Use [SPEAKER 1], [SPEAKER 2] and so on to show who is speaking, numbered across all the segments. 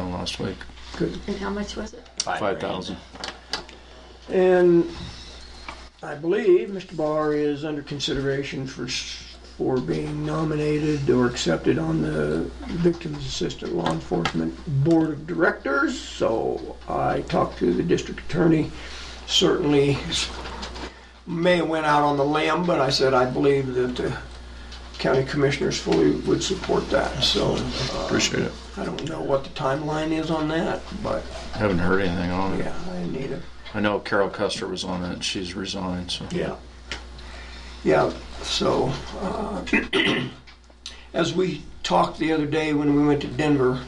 [SPEAKER 1] last week.
[SPEAKER 2] Good.
[SPEAKER 3] And how much was it?
[SPEAKER 1] Five thousand.
[SPEAKER 2] And I believe Mr. Barr is under consideration for, s- for being nominated or accepted on the Victims Assistant Law Enforcement Board of Directors. So I talked to the district attorney, certainly may have went out on the limb, but I said I believe that the county commissioners fully would support that. So uh,
[SPEAKER 1] Appreciate it.
[SPEAKER 2] I don't know what the timeline is on that, but
[SPEAKER 1] Haven't heard anything on it.
[SPEAKER 2] yeah, I need a
[SPEAKER 1] I know Carol Custer was on it. and She's resigned, so.
[SPEAKER 2] Yeah. Yeah, so, uh, as we talked the other day when we went to Denver,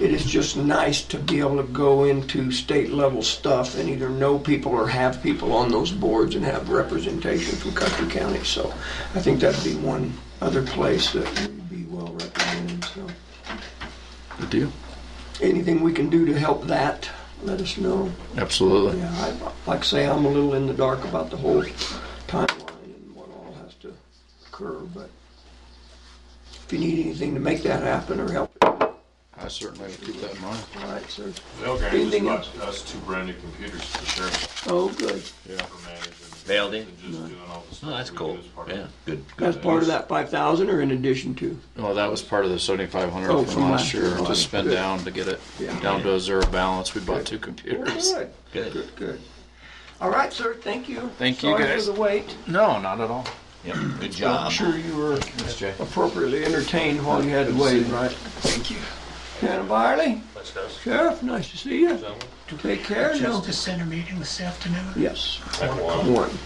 [SPEAKER 2] it is just nice to be able to go into state level stuff and either know people or have people on those boards and have representation from Custer County. So I think that'd be one other place that would be well represented, so.
[SPEAKER 1] Good deal.
[SPEAKER 2] Anything we can do to help that, let us know.
[SPEAKER 1] Absolutely.
[SPEAKER 2] Yeah, I, like I say, I'm a little in the dark about the whole timeline and what all has to occur, but if you need anything to make that happen or help, all
[SPEAKER 1] I certainly would keep that in mind.
[SPEAKER 2] right, sir.
[SPEAKER 4] They'll grant
[SPEAKER 2] Anything
[SPEAKER 4] us, us two brand new computers for sure,
[SPEAKER 2] Oh, good.
[SPEAKER 4] for managing.
[SPEAKER 5] Failed it?
[SPEAKER 4] and Just doing all the stuff.
[SPEAKER 5] No, Oh, that's
[SPEAKER 4] we do
[SPEAKER 5] cool.
[SPEAKER 4] as part of
[SPEAKER 5] Yeah,
[SPEAKER 4] it.
[SPEAKER 5] good,
[SPEAKER 2] That's
[SPEAKER 5] good.
[SPEAKER 2] part of that five thousand or in addition to?
[SPEAKER 1] Well, that was part of the seventy-five
[SPEAKER 2] Oh,
[SPEAKER 1] hundred from last year to spend down to get it
[SPEAKER 2] Yeah.
[SPEAKER 1] down to a zero balance. We bought two computers.
[SPEAKER 2] Good,
[SPEAKER 5] Good.
[SPEAKER 2] good, good. All right, sir, thank you.
[SPEAKER 1] Thank you,
[SPEAKER 2] Sorry for
[SPEAKER 1] guys.
[SPEAKER 2] the wait.
[SPEAKER 1] No, not at all.
[SPEAKER 5] Yep, good
[SPEAKER 2] I'm
[SPEAKER 5] job.
[SPEAKER 2] sure you were
[SPEAKER 5] Thanks, Jay.
[SPEAKER 2] appropriately entertained while you had to wait, right? Thank you. Hannah Byerly, Sheriff, nice to see you. Take care. No.
[SPEAKER 6] Justice Center meeting this afternoon.
[SPEAKER 2] Yes,
[SPEAKER 4] I had one.
[SPEAKER 2] one.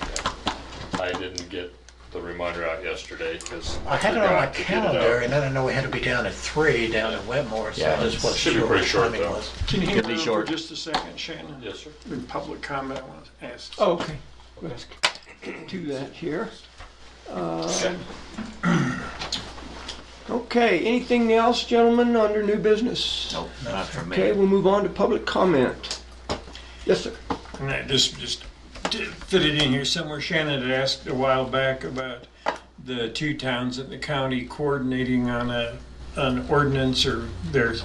[SPEAKER 4] I didn't get the reminder out yesterday because.
[SPEAKER 6] I had it on my calendar, and then I know we had to be down at three down in Wetmore, so
[SPEAKER 5] Yeah,
[SPEAKER 6] I just wasn't
[SPEAKER 4] should be
[SPEAKER 6] sure what
[SPEAKER 4] pretty short,
[SPEAKER 6] time it
[SPEAKER 4] though.
[SPEAKER 6] was.
[SPEAKER 7] Can you
[SPEAKER 5] Could
[SPEAKER 7] hang
[SPEAKER 5] be
[SPEAKER 7] around for
[SPEAKER 5] short.
[SPEAKER 7] just a second, Shannon?
[SPEAKER 4] Yes, sir.
[SPEAKER 7] In public comment, I want to ask.
[SPEAKER 2] Okay, let's do that here. Um,
[SPEAKER 4] Okay.
[SPEAKER 2] Okay, anything else, gentlemen, under new business?
[SPEAKER 5] Nope, not for
[SPEAKER 2] Okay,
[SPEAKER 5] me.
[SPEAKER 2] we'll move on to public comment. Yes, sir.
[SPEAKER 7] And I just, just did fit it in here somewhere. Shannon had asked a while back about the two towns in the county coordinating on a, an ordinance or there's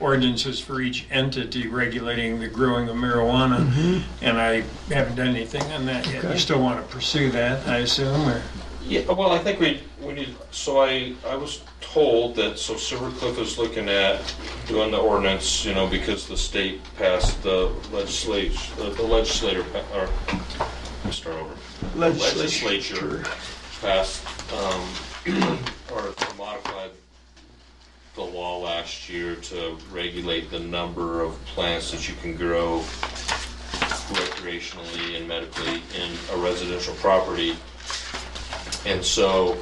[SPEAKER 7] ordinances for each entity regulating the growing of marijuana. And I haven't done anything on that yet. You still want to pursue that, I assume, or?
[SPEAKER 8] Yeah, Uh, well, I think we, we need, so I, I was told that, so Silver Cliff is looking at doing the ordinance, you know, because the state passed the legislation, the legislator, pa- or, let me start over. Legislature passed, um, or modified the law last year to regulate the number of plants that you can grow recreationally and medically in a residential property. And so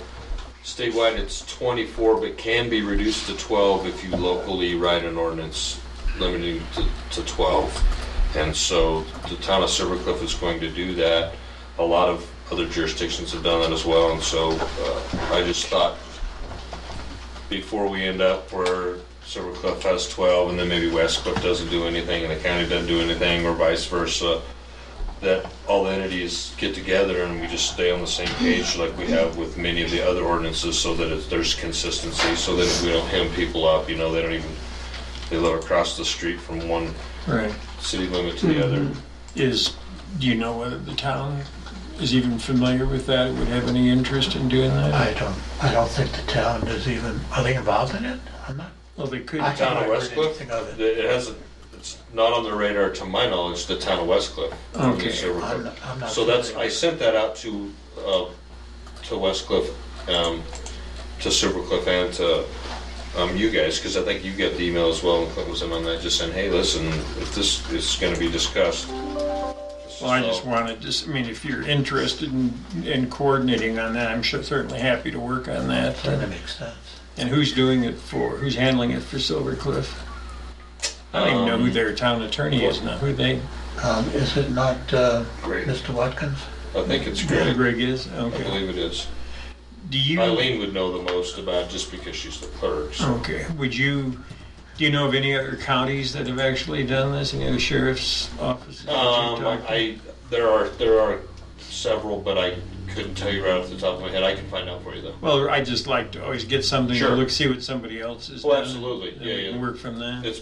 [SPEAKER 8] statewide, it's 24, but can be reduced to 12 if you locally write an ordinance limiting to, to 12. And so the town of Silver Cliff is going to do that. A lot of other jurisdictions have done that as well. And so uh, I just thought before we end up where Silver Cliff has 12 and then maybe West Cliff doesn't do anything and the county doesn't do anything or vice versa, that all the entities get together and we just stay on the same page like we have with many of the other ordinances so that it's, there's consistency, so that we don't hem people up, you know, they don't even, they live across the street from one
[SPEAKER 7] Right.
[SPEAKER 8] city limit to the other.
[SPEAKER 7] is, do you know whether the town is even familiar with that, would have any interest in doing that?
[SPEAKER 6] I don't, I don't think the town is even, are they involved in it? I'm not,
[SPEAKER 7] Well, they could,
[SPEAKER 6] I haven't
[SPEAKER 8] Town of
[SPEAKER 6] heard
[SPEAKER 8] West Cliff?
[SPEAKER 6] anything of it.
[SPEAKER 8] It hasn't, it's not on the radar, to my knowledge, the town of West Cliff.
[SPEAKER 7] Okay.
[SPEAKER 8] So
[SPEAKER 6] I'm not- I'm not
[SPEAKER 8] So that's,
[SPEAKER 6] familiar.
[SPEAKER 8] I sent that out to, uh, to West Cliff, um, to Silver Cliff and to, um, you guys, because I think you got the email as well, and Clint was in on that, just saying, hey, listen, if this is gonna be discussed. this is
[SPEAKER 7] well, I just
[SPEAKER 8] all-
[SPEAKER 7] wanted, just, I mean, if you're interested in, in coordinating on that, I'm sure certainly happy to work on that.
[SPEAKER 6] That makes sense.
[SPEAKER 7] And who's doing it for, who's handling it for Silver Cliff? I don't even know
[SPEAKER 8] Um,
[SPEAKER 7] who their town attorney is now, who they,
[SPEAKER 6] Um, is it not, uh,
[SPEAKER 8] Great.
[SPEAKER 6] Mr. Watkins?
[SPEAKER 8] I think it's great,
[SPEAKER 7] Greg is,
[SPEAKER 8] I
[SPEAKER 7] okay.
[SPEAKER 8] believe it is.
[SPEAKER 7] Do you?
[SPEAKER 8] Eileen would know the most about, it just because she's the clerk, so.
[SPEAKER 7] Okay, would you, do you know of any other counties that have actually done this, any other sheriff's offices? that you've
[SPEAKER 8] Um,
[SPEAKER 7] talked to?
[SPEAKER 8] I, there are, there are several, but I couldn't tell you right off the top of my head, I can find out for you though.
[SPEAKER 7] Well, I just like to always get something,
[SPEAKER 8] Sure.
[SPEAKER 7] to look, see what somebody else is
[SPEAKER 8] Oh,
[SPEAKER 7] doing.
[SPEAKER 8] absolutely.
[SPEAKER 7] and
[SPEAKER 8] Yeah,
[SPEAKER 7] we
[SPEAKER 8] yeah.
[SPEAKER 7] can work from that.
[SPEAKER 8] It's